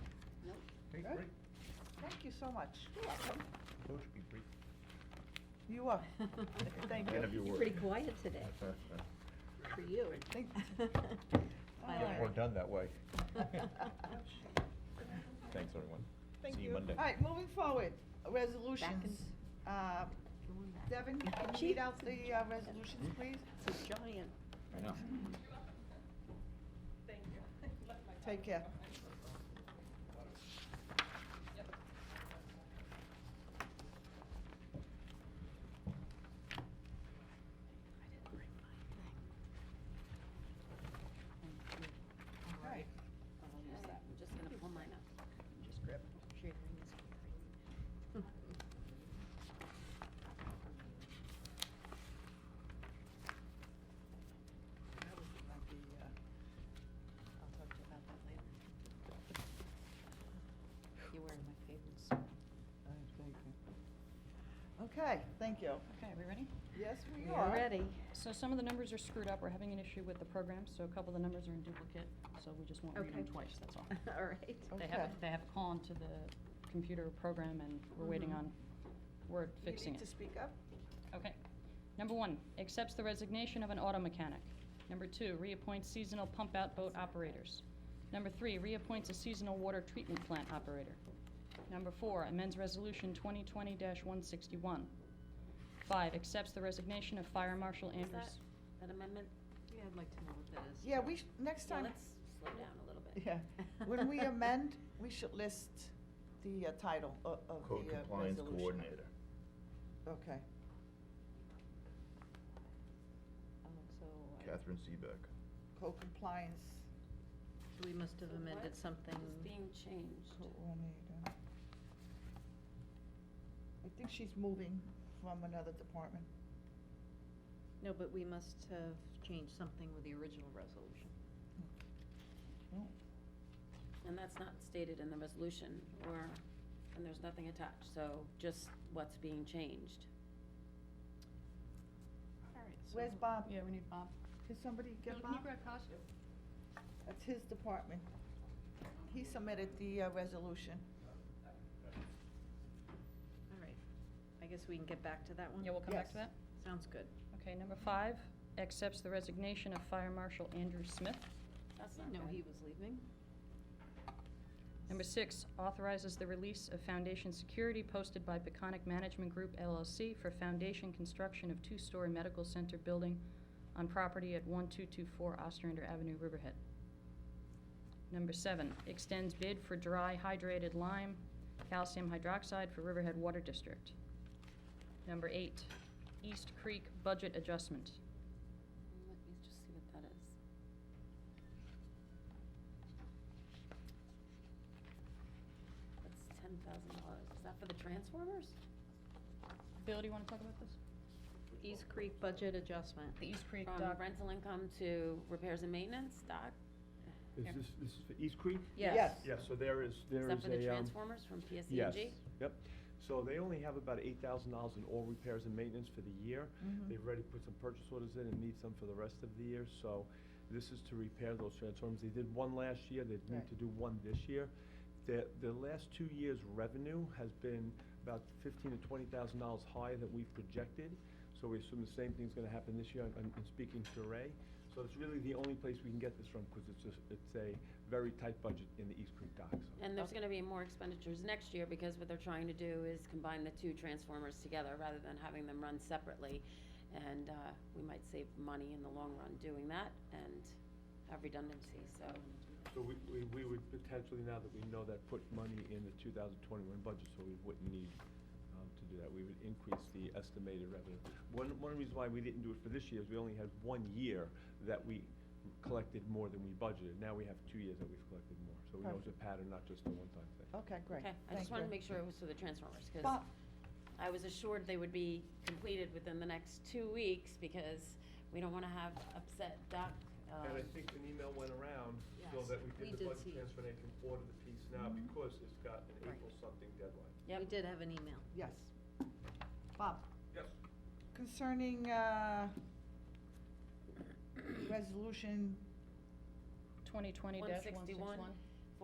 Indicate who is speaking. Speaker 1: Good. Thank you so much. You're welcome.
Speaker 2: Coach, be brief.
Speaker 1: You are. Thank you.
Speaker 2: None of your
Speaker 3: You're
Speaker 2: work.
Speaker 3: pretty quiet today, for you.
Speaker 1: Thank-
Speaker 3: Fine.
Speaker 2: Get more done that way. Thanks, everyone.
Speaker 1: Thank
Speaker 2: See
Speaker 1: you.
Speaker 2: you Monday.
Speaker 1: All right, moving forward, resolutions. Uh,
Speaker 3: Going back.
Speaker 1: Devin, can you read
Speaker 3: Chief,
Speaker 1: out
Speaker 3: it's a
Speaker 1: the uh,
Speaker 3: giant-
Speaker 1: resolutions,
Speaker 2: Hmm?
Speaker 1: please?
Speaker 3: It's a giant.
Speaker 2: I know.
Speaker 1: Take care.
Speaker 3: I didn't bring my thing.
Speaker 1: All right.
Speaker 3: I'll use that. I'm just gonna pull mine up.
Speaker 1: Just grab it.
Speaker 3: Sharing is caring.
Speaker 1: That was about the, uh,
Speaker 3: I'll talk to you about that later. You're wearing my favorite sweater.
Speaker 1: I think, uh, Okay, thank you.
Speaker 4: Okay, we ready?
Speaker 1: Yes, we
Speaker 3: We
Speaker 1: are.
Speaker 3: are ready.
Speaker 4: So some of the numbers are screwed up, we're having an issue with the program, so a couple of the numbers are in duplicate, so we just won't read them
Speaker 3: Okay.
Speaker 4: twice, that's all.
Speaker 3: All right.
Speaker 1: Oh,
Speaker 4: They have,
Speaker 1: Okay.
Speaker 4: they have it call into the computer program and we're waiting
Speaker 3: Mhm.
Speaker 4: on Word
Speaker 1: Mm-hmm. You
Speaker 4: fixing
Speaker 1: need to
Speaker 4: it.
Speaker 1: speak up.
Speaker 4: Okay. Number one, accepts the resignation of an auto mechanic. Number two, reappoints seasonal pump-out boat operators. Number three, reappoints a seasonal water treatment plant operator. Number four, amends Resolution 2020-161. Five, accepts the resignation of Fire Marshal
Speaker 3: Is
Speaker 4: Andrews.
Speaker 3: That amendment? Yeah, I'd like to know what that is.
Speaker 1: Yeah, we, sh- next
Speaker 3: Yeah,
Speaker 1: time.
Speaker 3: let's slow down a little bit.
Speaker 1: Yeah, when we amend, we should list the uh, title o- of the uh,
Speaker 2: Code
Speaker 1: resolution.
Speaker 2: compliance coordinator.
Speaker 1: Okay,
Speaker 3: Oh, so, I-
Speaker 2: Catherine Seebeck.
Speaker 1: code compliance
Speaker 3: so we must have
Speaker 4: So what
Speaker 3: amended something.
Speaker 4: is being changed.
Speaker 1: oh, coordinator. I think she's moving from another department.
Speaker 3: No, but we must have changed something with the original resolution.
Speaker 1: No,
Speaker 5: And that's not stated in the resolution or, and there's nothing attached, so just what's being changed.
Speaker 1: Where's Bob?
Speaker 4: Yeah, we need Bob.
Speaker 1: Can somebody get Bob? That's his department. He submitted the uh, resolution.
Speaker 3: All right. I guess we can get back to that one?
Speaker 4: Yeah, we'll come back to
Speaker 1: Yes.
Speaker 4: that.
Speaker 3: Sounds good.
Speaker 4: Okay, number five, accepts the resignation of Fire Marshal Andrew Smith.
Speaker 5: That's
Speaker 3: I
Speaker 5: not
Speaker 3: didn't know
Speaker 5: right.
Speaker 3: he was leaving.
Speaker 4: Number six, authorizes the release of foundation security posted by Peconic Management Group LLC for foundation construction of two-story medical center building on property at 1224 Ostrander Avenue, Riverhead. Number seven, extends bid for dry hydrated lime calcium hydroxide for Riverhead Water District. Number eight, East Creek budget adjustment.
Speaker 5: Let me just see what that is. That's ten thousand dollars. Is that for the transformers?
Speaker 4: Bill, do you want to talk about this?
Speaker 3: East Creek budget adjustment.
Speaker 4: The East Creek
Speaker 5: From
Speaker 4: dock.
Speaker 5: rental income to repairs and maintenance, Doc?
Speaker 6: Is
Speaker 4: Yeah.
Speaker 6: this, this is for East Creek?
Speaker 1: Yes.
Speaker 6: Yeah, so there is,
Speaker 5: Is
Speaker 6: there
Speaker 5: that
Speaker 6: is
Speaker 5: for the
Speaker 6: a, um,
Speaker 5: transformers from E PSEG?
Speaker 6: yes, yep. So they only have about eight thousand dollars in all repairs and maintenance for the year.
Speaker 1: Mhm.
Speaker 6: They've already put some purchase orders in and need some for the rest of the year, so this is to repair those transformers. They did one last year, they
Speaker 1: Right.
Speaker 6: need to do one this year. Their, their last two years' revenue has been about fifteen to twenty thousand dollars higher than we've projected, so we assume the same thing's gonna happen this year, I'm, I'm speaking to Ray. So it's really the only place we can get this from, because it's just, it's a very tight budget in the East Creek docks.
Speaker 5: And there's gonna be more expenditures next year, because what they're trying to do is combine the two transformers together, rather than having them run separately. And, uh, we might save money in the long run doing that, and have redundancy, so,
Speaker 6: So we, we, we would potentially, now that we know that, put money in the two thousand twenty-one budget, so we wouldn't need, um, to do that. We would increase the estimated revenue. One, one reason why we didn't do it for this year is we only had one year that we collected more than we budgeted. Now we have two years that we've collected more, so we know it's a pattern, not just a one-time thing.
Speaker 3: Uh,
Speaker 1: Okay, great.
Speaker 5: okay, I
Speaker 1: Thank
Speaker 5: just wanted to
Speaker 1: you.
Speaker 5: make sure it was for the transformers, cause
Speaker 1: Bob,
Speaker 5: I was assured they would be completed within the next two weeks, because we don't wanna have upset Doc,
Speaker 6: And I
Speaker 5: uh,
Speaker 6: think an email went around, so
Speaker 3: Yes,
Speaker 6: that we
Speaker 3: we
Speaker 6: did the
Speaker 3: did
Speaker 6: budget
Speaker 3: see. Mm-hmm.
Speaker 6: transfer, and they can order the piece now, because it's got an
Speaker 5: Right.
Speaker 6: April something deadline.
Speaker 3: We
Speaker 5: Yep.
Speaker 3: did have an email.
Speaker 1: yes. Bob,
Speaker 6: Yes.
Speaker 1: concerning, uh, resolution
Speaker 4: 2020-161.
Speaker 5: 161.